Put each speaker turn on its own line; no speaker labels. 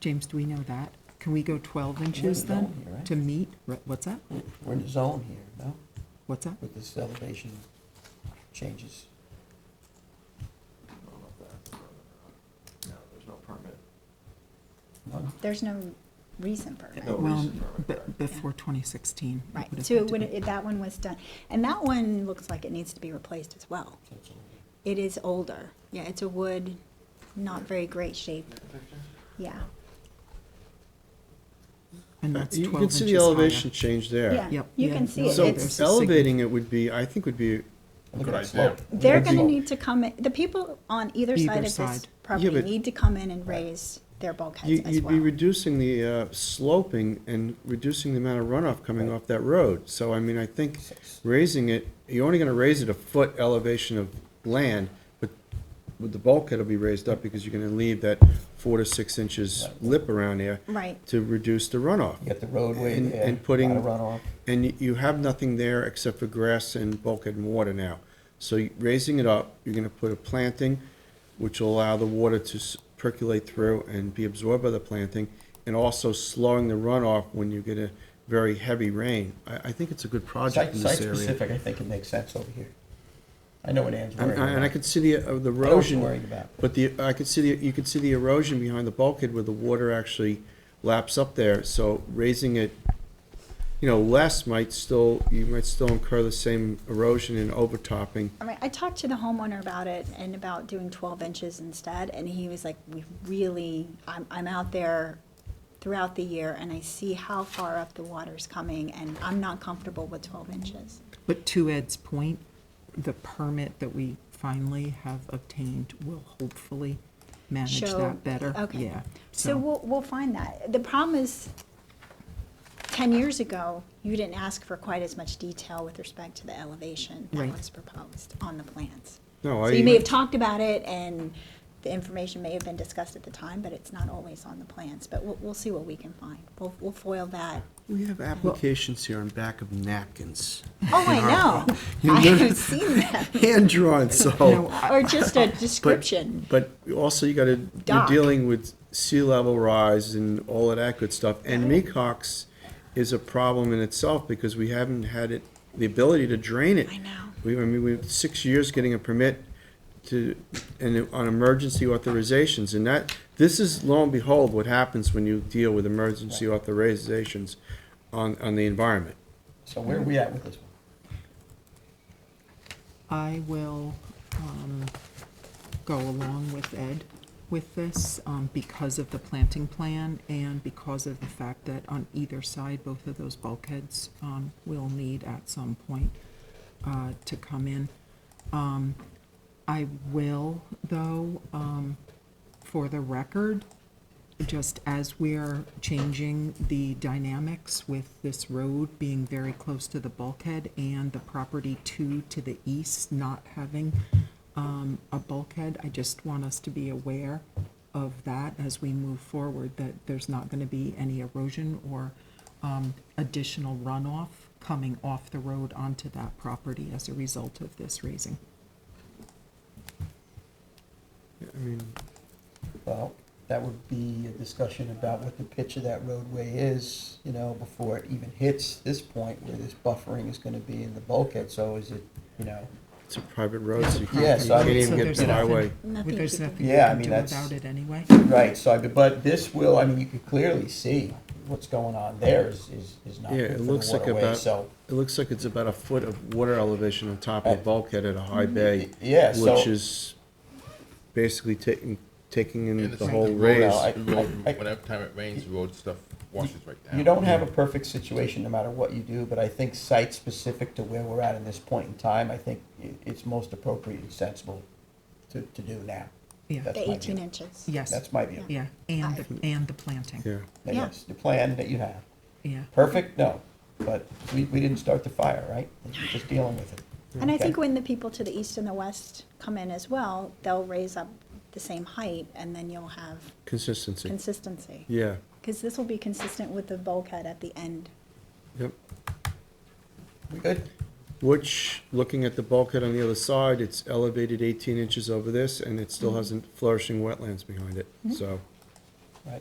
James, do we know that? Can we go 12 inches
We're in
then
zone here, right?
to meet? Right, What's that?
We're in the zone here, no?
What's that?
With this elevation changes.
No, there's no permit.
No?
There's no reason for it.
No
Well,
reason for it,
be-
correct.
before 2016. it
Right,
would've
so
had
it
to
would,
be-
it- that one was done, and that one looks like it needs to be replaced as well.
That's all.
It is older, yeah, it's a wood, not very great shape, yeah,
And that's
Uh, You
12
can
inches
see the
higher.
elevation change there.
yeah,
Yep,
you
yeah,
can see
no,
it,
So
it's,
a significant-
elevating it would be, I think would be,
Look
Good
at
idea.
the slope.
they're
Look at the
gonna
slope.
need to come, in the people on either side
Either
of this
side.
property
but-
need to come in and
Right.
raise their bulkheads
you-
as
you'd be
well.
reducing the uh, sloping and reducing the amount of runoff coming off that road. So I mean, I think
Six.
raising it, you're only gonna raise it a foot elevation of land, but with the bulkhead will be raised up because you're gonna leave that four to six inches
Right.
lip around there
Right,
to reduce the runoff.
You got the roadway
And-
there,
and putting-
a lot of runoff.
And you- you have nothing there except for grass and bulkhead and water now. So you- raising it up, you're gonna put a planting, which will allow the water to s- percolate through and be absorbed by the planting, and also slowing the runoff when you get a very heavy rain. I, I think it's a good
Site,
project in this area.
site-specific, I think it makes sense over here. I know what Ann's
And
worried about.
and I could see the, of
I
the
know what you're
erosion.
worried about.
But the, I could see, the you could see the erosion behind the bulkhead where the water actually laps up there, so raising it, you know, less might still, you might still incur the same erosion and overtopping.
I mean, I talked to the homeowner about it and about doing twelve inches instead, and he was like, we really, I'm, I'm out there throughout the year and I see how far up the water's coming and I'm not comfortable with twelve inches.
But to Ed's point, the permit that we finally have obtained will hopefully manage
Show-
that better.
okay.
Yeah.
So we'll, we'll find that. The problem is, ten years ago, you didn't ask for quite as much detail with respect to the elevation that
Right.
was proposed on the plans.
No,
So you may
I,
have talked about it, and the information may have been discussed at the time, but it's not always on the plans. But we'll, we'll see what we can find. We'll, we'll foil that.
we have applications here on back of napkins,
Oh, I know.
You
I
live-
have seen that.
hand-drawn, so.
Or just a description.
But also you gotta, you're
Dock.
dealing with sea level rise and all of that good stuff. And Mecox is a problem in itself because we haven't had it, the ability to drain it.
I know.
We, I mean, we have six years getting a permit to, and on emergency authorizations. And that, this is lo and behold what happens when you deal with emergency authorizations on, on the environment.
So where are we at with this one?
I will um, go along with Ed with this um, because of the planting plan and because of the fact that on either side, both of those bulkheads um, will need at some point uh, to come in. Um, I will, though, um, for the record, just as we're changing the dynamics with this road being very close to the bulkhead and the property two to the east not having um, a bulkhead, I just want us to be aware of that as we move forward, that there's not going to be any erosion or um, additional runoff coming off the road onto that property as a result of this raising.
I mean,
Well, that would be a discussion about what the pitch of that roadway is, you know, before it even hits this point where this buffering is gonna be in the bulkhead, so is it, you know?
it's a private road, so you
Yeah,
can't you
so I
can't
mean-
even
So
get
there's
to the
nothing-
highway.
Nothing
There's
you can-
nothing you
Yeah, I
can
mean,
do
that's-
about it anyway.
Right, so I, but this will, I mean, you can clearly see what's going on there is, is, is not
Yeah,
good
it
for the
looks like
waterway,
about,
so.
it looks like it's about a foot of water elevation on top of the
Right.
bulkhead at a high bay.
Uh, Yeah, so-
Which is basically taking, taking in
And it's
the
like
whole
the road
raise.
out. I-
The road,
I- I-
Whenever time it rains, the road stuff washes right down.
You don't have a perfect situation no matter what you do, but I think site-specific to where we're at in this point in time, I think i it's most appropriate and sensible to, to do now.
Yeah,
That's
The
my
eighteen
view.
inches.
yes,
That's my view.
yeah, and, the- and the planting,
Yeah,
But
Yeah.
Yes, the plan that you have.
yeah.
Perfect, no, but we, we didn't start the fire, right? We're just dealing with it.
And I
Okay.
think when the people to the east and the west come in as well, they'll raise up the same height, and then you'll have
consistency,
consistency.
yeah,
Because this will be consistent with the bulkhead at the end.
yep.
We good?
Which, looking at the bulkhead on the other side, it's elevated eighteen inches over this, and it still has a flourishing wetlands behind it, so.